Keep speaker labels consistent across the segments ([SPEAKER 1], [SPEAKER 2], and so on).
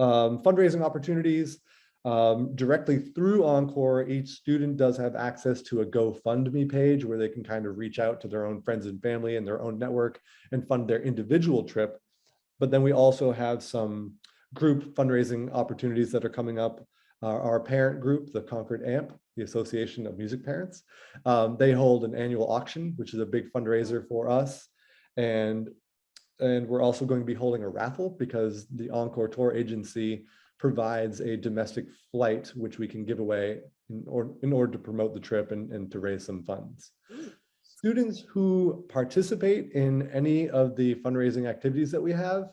[SPEAKER 1] um, fundraising opportunities. Um, directly through Encore, each student does have access to a GoFundMe page where they can kind of reach out to their own friends and family and their own network and fund their individual trip. But then we also have some group fundraising opportunities that are coming up. Our, our parent group, the Concord AMP, the Association of Music Parents, um, they hold an annual auction, which is a big fundraiser for us. And and we're also going to be holding a raffle because the Encore Tour Agency provides a domestic flight, which we can give away in, or, in order to promote the trip and, and to raise some funds. Students who participate in any of the fundraising activities that we have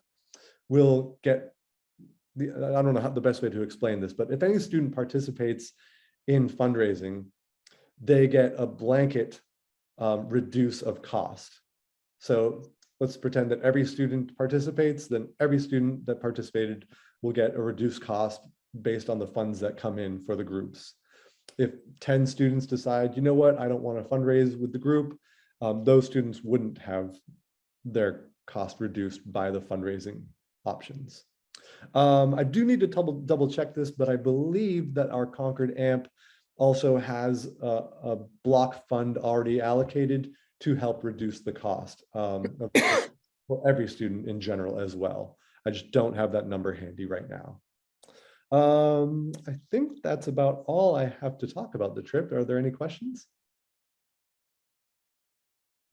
[SPEAKER 1] will get the, I don't know how the best way to explain this, but if any student participates in fundraising, they get a blanket um, reduce of cost. So let's pretend that every student participates, then every student that participated will get a reduced cost based on the funds that come in for the groups. If 10 students decide, you know what, I don't want to fundraise with the group, um, those students wouldn't have their cost reduced by the fundraising options. Um, I do need to double, double check this, but I believe that our Concord AMP also has a, a block fund already allocated to help reduce the cost um, of- for every student in general as well. I just don't have that number handy right now. Um, I think that's about all I have to talk about the trip. Are there any questions?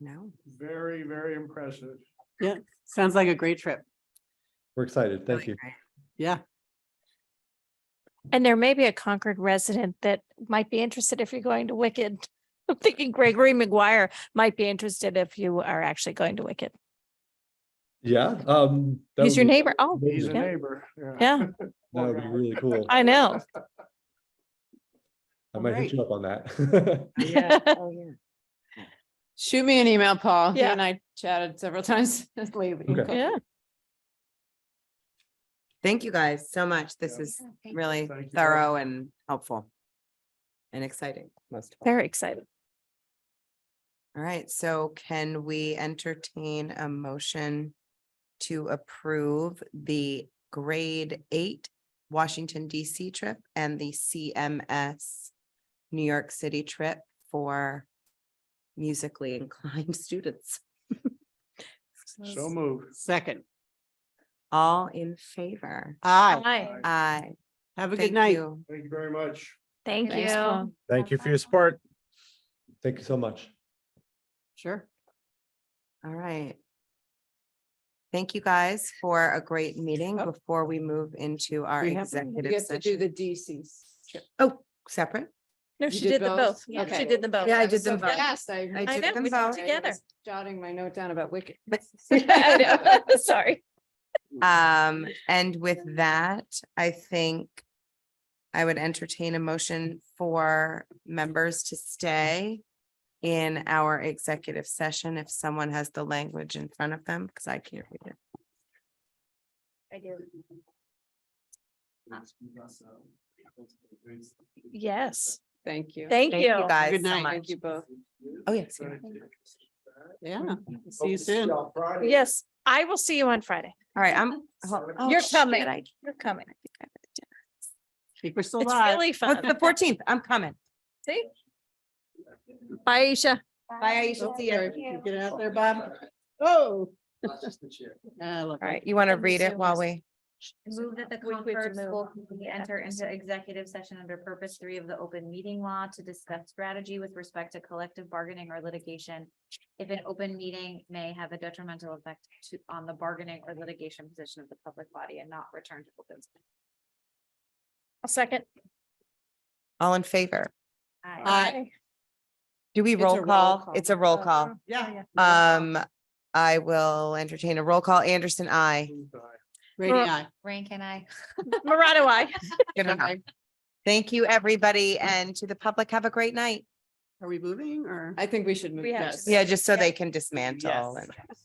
[SPEAKER 2] No,
[SPEAKER 3] Very, very impressive.
[SPEAKER 2] sounds like a great trip.
[SPEAKER 1] We're excited. Thank
[SPEAKER 2] Really
[SPEAKER 1] you.
[SPEAKER 2] great. Yeah,
[SPEAKER 4] And there may be a Concord resident that might be interested if you're going to Wicked. I'm thinking Gregory McGuire might be interested if you are actually going to Wicked.
[SPEAKER 1] Yeah. um, that
[SPEAKER 4] He's
[SPEAKER 1] would
[SPEAKER 4] your
[SPEAKER 1] be-
[SPEAKER 4] neighbor. Oh,
[SPEAKER 3] He's a
[SPEAKER 4] Yeah.
[SPEAKER 3] neighbor.
[SPEAKER 4] yeah,
[SPEAKER 1] That would be really cool.
[SPEAKER 4] I know.
[SPEAKER 1] I might hit
[SPEAKER 2] Alright.
[SPEAKER 1] you up on that.
[SPEAKER 3] Yeah.
[SPEAKER 5] Shoot me an email, Paul. You
[SPEAKER 4] Yeah.
[SPEAKER 5] and I chatted several times lately.
[SPEAKER 1] Okay.
[SPEAKER 4] Yeah.
[SPEAKER 2] thank you guys so much. This
[SPEAKER 3] Yeah.
[SPEAKER 2] is really
[SPEAKER 3] Thank you.
[SPEAKER 2] thorough and helpful. And exciting, most of all.
[SPEAKER 4] Very excited.
[SPEAKER 2] All right, so can we entertain a motion to approve the grade eight Washington DC trip and the CMS New York City trip for musically inclined students?
[SPEAKER 3] So moved.
[SPEAKER 2] Second. All in favor?
[SPEAKER 5] Aye.
[SPEAKER 4] Hi,
[SPEAKER 2] Aye.
[SPEAKER 5] Have a
[SPEAKER 2] Thank
[SPEAKER 5] good night.
[SPEAKER 2] you.
[SPEAKER 3] Thank you very much.
[SPEAKER 4] thank
[SPEAKER 5] Thanks,
[SPEAKER 4] you.
[SPEAKER 5] Paul.
[SPEAKER 6] Thank you for your support.
[SPEAKER 1] Thank you so much.
[SPEAKER 5] Sure.
[SPEAKER 2] All right. Thank you guys for a great meeting
[SPEAKER 5] Oh.
[SPEAKER 2] before we move into our
[SPEAKER 5] We have we
[SPEAKER 2] executive
[SPEAKER 5] have to do
[SPEAKER 2] session.
[SPEAKER 5] the DCs. trip.
[SPEAKER 2] Oh, separate?
[SPEAKER 4] No,
[SPEAKER 5] You
[SPEAKER 4] she
[SPEAKER 5] did
[SPEAKER 4] did the
[SPEAKER 5] both?
[SPEAKER 4] both. Yeah,
[SPEAKER 5] Okay.
[SPEAKER 4] She did the both.
[SPEAKER 2] Yeah, I
[SPEAKER 5] Oh, was
[SPEAKER 2] did them
[SPEAKER 5] so
[SPEAKER 2] both.
[SPEAKER 5] fast, I
[SPEAKER 2] I
[SPEAKER 5] heard
[SPEAKER 2] took
[SPEAKER 4] know,
[SPEAKER 2] them
[SPEAKER 4] we did it
[SPEAKER 2] both.
[SPEAKER 4] together.
[SPEAKER 5] was Jotting my note down about Wicked.
[SPEAKER 4] I know. Sorry.
[SPEAKER 2] Um, and with that, I think I would entertain a motion for members to stay in our executive session if someone has the language in front of them, because I can't read it.
[SPEAKER 4] I do. Yes,
[SPEAKER 5] Thank you.
[SPEAKER 4] thank
[SPEAKER 2] Thank you
[SPEAKER 4] you.
[SPEAKER 2] guys
[SPEAKER 5] Good
[SPEAKER 2] so
[SPEAKER 5] night.
[SPEAKER 2] much.
[SPEAKER 5] Thank you both.
[SPEAKER 2] Oh, yes.
[SPEAKER 5] Yeah. See
[SPEAKER 3] Hope
[SPEAKER 5] you
[SPEAKER 3] to
[SPEAKER 5] soon.
[SPEAKER 3] on Friday.
[SPEAKER 4] Yes, I will see you on Friday.
[SPEAKER 2] All right, I'm. oh, oh,
[SPEAKER 4] You're
[SPEAKER 2] shoot,
[SPEAKER 4] coming.
[SPEAKER 2] I-
[SPEAKER 4] You're coming.
[SPEAKER 5] Think we're still
[SPEAKER 4] It's
[SPEAKER 5] live.
[SPEAKER 4] really
[SPEAKER 2] Oh, The
[SPEAKER 4] fun.
[SPEAKER 2] fourteenth, I'm coming.
[SPEAKER 4] See? Bye, Aisha.
[SPEAKER 2] Bye, Aisha. See you.
[SPEAKER 5] You Get out there, Bob. Oh. I love
[SPEAKER 2] All
[SPEAKER 5] it.
[SPEAKER 2] right, you want to
[SPEAKER 4] And the
[SPEAKER 2] read it
[SPEAKER 4] Zoom
[SPEAKER 2] while
[SPEAKER 4] is-
[SPEAKER 2] we?
[SPEAKER 7] Move that the
[SPEAKER 4] We- we have to
[SPEAKER 7] Concord
[SPEAKER 4] move
[SPEAKER 7] School
[SPEAKER 4] on.
[SPEAKER 7] Committee
[SPEAKER 4] Yeah,
[SPEAKER 7] enter
[SPEAKER 4] that's
[SPEAKER 7] into executive session under purpose three of the open meeting law to discuss strategy with respect to collective bargaining or litigation. If an open meeting may have a detrimental effect to, on the bargaining or litigation position of the public body and not return to open. session.
[SPEAKER 4] A second.
[SPEAKER 2] All in favor?
[SPEAKER 7] Aye.
[SPEAKER 5] Aye.
[SPEAKER 2] Do we
[SPEAKER 5] It's a
[SPEAKER 2] roll
[SPEAKER 5] roll
[SPEAKER 2] call? Uh,
[SPEAKER 5] call.
[SPEAKER 2] It's a roll call.
[SPEAKER 5] Yeah.
[SPEAKER 2] Um, I will entertain a roll call. Anderson, I.
[SPEAKER 5] Brady, aye.
[SPEAKER 7] Rank and I.
[SPEAKER 4] Marado, I.
[SPEAKER 2] Thank you, everybody, and to the public, have a great night.
[SPEAKER 5] Are we moving or? I think we should move.
[SPEAKER 4] We have
[SPEAKER 5] yes.
[SPEAKER 4] to
[SPEAKER 2] Yeah, just so
[SPEAKER 4] Yeah.
[SPEAKER 2] they can dismantle
[SPEAKER 5] Yes.
[SPEAKER 2] and